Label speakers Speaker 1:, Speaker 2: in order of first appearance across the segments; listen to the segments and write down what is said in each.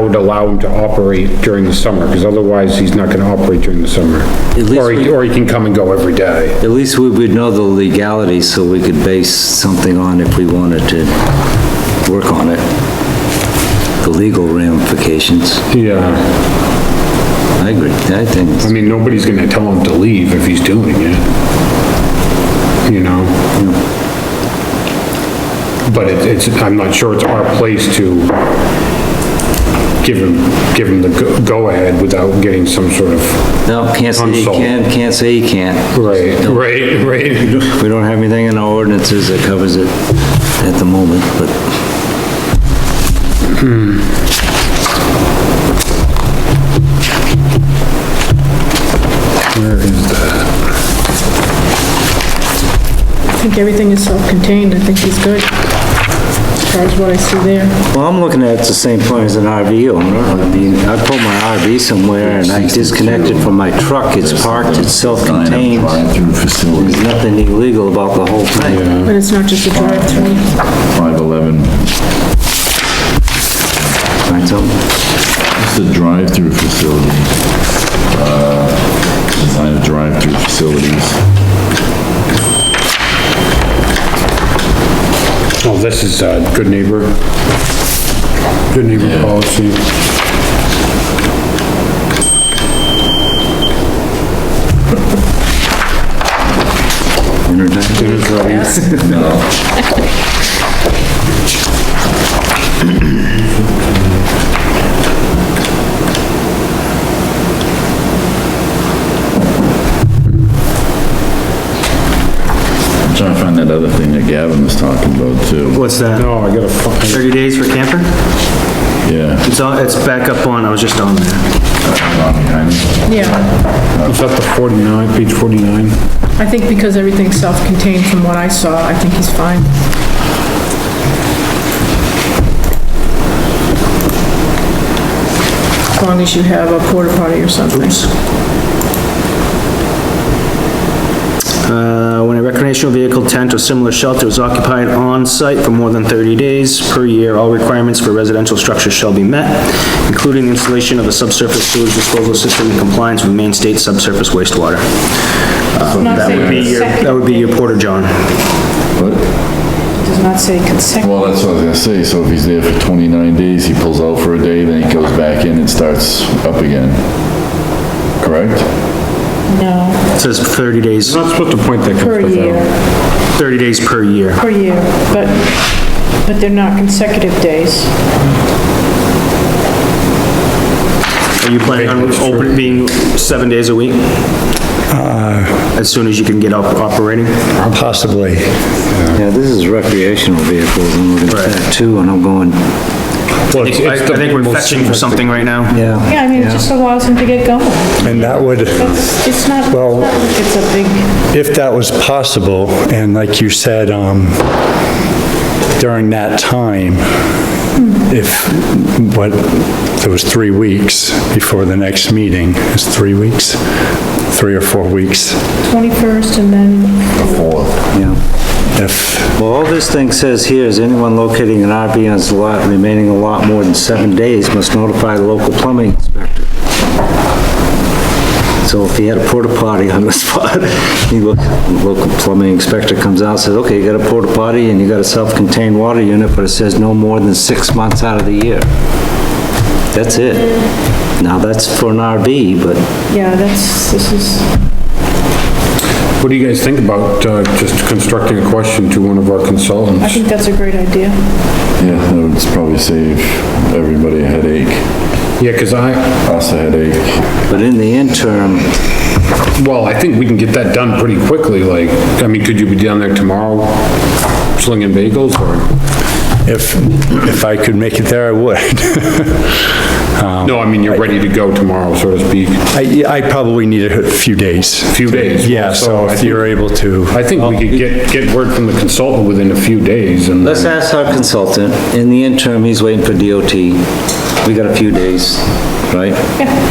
Speaker 1: would allow him to operate during the summer, because otherwise he's not gonna operate during the summer.
Speaker 2: least
Speaker 1: Or he,
Speaker 2: we-
Speaker 1: or he can come and go every day.
Speaker 2: At least we would know the legalities, so we could base something on if we wanted to work on it. The legal ramifications.
Speaker 1: Yeah.
Speaker 2: I agree, I think,
Speaker 1: I mean, nobody's gonna tell him to leave if he's doing it. You know? But it- it's, I'm not sure it's our place to give him, give him the go- go-ahead without getting some sort of,
Speaker 2: no, can't say you
Speaker 1: Unsolved.
Speaker 2: can, can't say you can't.
Speaker 1: right, right, right.
Speaker 2: We don't have anything in our ordinances that covers it at the moment, but
Speaker 3: I think everything is self-contained, I think he's good, as far as what I see there.
Speaker 2: Well, I'm looking at it the same point as an RV owner. I mean, I put my RV somewhere and I disconnect it from my truck. It's parked, it's self-contained.
Speaker 4: Drive-through facility,
Speaker 2: There's nothing illegal about the whole thing.
Speaker 3: But it's not just a drive-through.
Speaker 4: 511.
Speaker 2: Right, so,
Speaker 4: It's a drive-through facility. Uh, Design of drive-through facilities.
Speaker 1: Oh, this is uh good neighbor. Good neighbor policy. Dinner's ready.
Speaker 4: I'm trying to find that other thing that Gavin was talking about too.
Speaker 5: What's that?
Speaker 1: No, I gotta, fi-
Speaker 5: 30 days for camper?
Speaker 4: Yeah.
Speaker 5: It's on, it's back up on, I was just on there.
Speaker 3: Yeah,
Speaker 1: is that the 49, page 49?
Speaker 3: I think because everything's self-contained from what I saw, I think he's fine. As long as you have a porta potty or something.
Speaker 5: Uh, when a recreational vehicle tent or similar shelter is occupied on-site for more than 30 days per year, all requirements for residential structures shall be met, including the installation of a subsurface sewage disposal system in compliance with main state subsurface wastewater. Uh, That would be your, that would be your porta john.
Speaker 4: What?
Speaker 3: Does not say consecutive.
Speaker 4: Well, that's what I was gonna say, so if he's there for 29 days, he pulls out for a day, then he goes back in and starts up again. Correct?
Speaker 5: It says 30 days,
Speaker 1: Not supposed to point that kind
Speaker 3: Per
Speaker 1: of stuff out.
Speaker 3: year,
Speaker 5: 30 days per year.
Speaker 3: per year, but, but they're not consecutive days.
Speaker 5: Are you planning on open, being seven days a week? As soon as you can get up operating?
Speaker 6: Possibly.
Speaker 2: yeah, this is recreational vehicles, and we're gonna that too, and I'm going,
Speaker 6: Well,
Speaker 5: I
Speaker 6: it's-
Speaker 5: I
Speaker 6: it's the-
Speaker 5: think we're fetching for something right now.
Speaker 2: yeah.
Speaker 3: Yeah, I mean, it just allows them to get going.
Speaker 6: And that would,
Speaker 3: It's it's not, it's
Speaker 6: Well-
Speaker 3: not like it's a big,
Speaker 6: if that was possible, and like you said, um, during that time, if, what, there was three weeks before the next meeting, it's three weeks? Three or four weeks,
Speaker 3: 21st and then,
Speaker 2: Yeah.
Speaker 6: if,
Speaker 2: Well, all this thing says here is anyone locating an RV on his lot remaining a lot more than seven days must notify the local plumbing inspector. So if he had a porta potty on the spot, he look, the local plumbing inspector comes out, and says, okay, you got a porta potty and you got a self-contained water unit, but it says no more than six months out of the year. That's it. Now, that's for an RV, but
Speaker 3: yeah, that's, this is,
Speaker 1: What do you guys think about uh, just constructing a question to one of our
Speaker 3: I
Speaker 1: consultants?
Speaker 3: think that's a great idea.
Speaker 4: Yeah, that would probably save everybody a headache,
Speaker 1: Yeah, because I,
Speaker 4: us a headache.
Speaker 2: But in the interim,
Speaker 1: well, I think we can get that done pretty quickly, like, I mean, could you be down there tomorrow slinging bagels or?
Speaker 6: if, if I could make it there, I would.
Speaker 2: Oh.
Speaker 1: No, I mean, you're ready to go tomorrow, so to speak,
Speaker 6: I, I probably need a few days.
Speaker 1: few days.
Speaker 6: Yeah, so
Speaker 1: I
Speaker 6: if
Speaker 1: think-
Speaker 6: you're able to.
Speaker 1: I think we could get, get word from the consultant within a few days and
Speaker 2: let's
Speaker 1: then-
Speaker 2: ask our consultant, in the interim, he's waiting for DOT. We got a few days, right?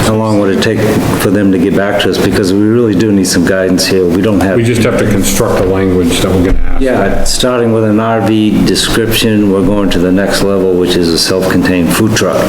Speaker 2: How long would it take for them to get back to us? Because we really do need some guidance here. We don't have,
Speaker 1: we just have to construct a language that we're gonna ask.
Speaker 2: yeah, starting with an RV description, we're going to the next level, which is a self-contained food truck.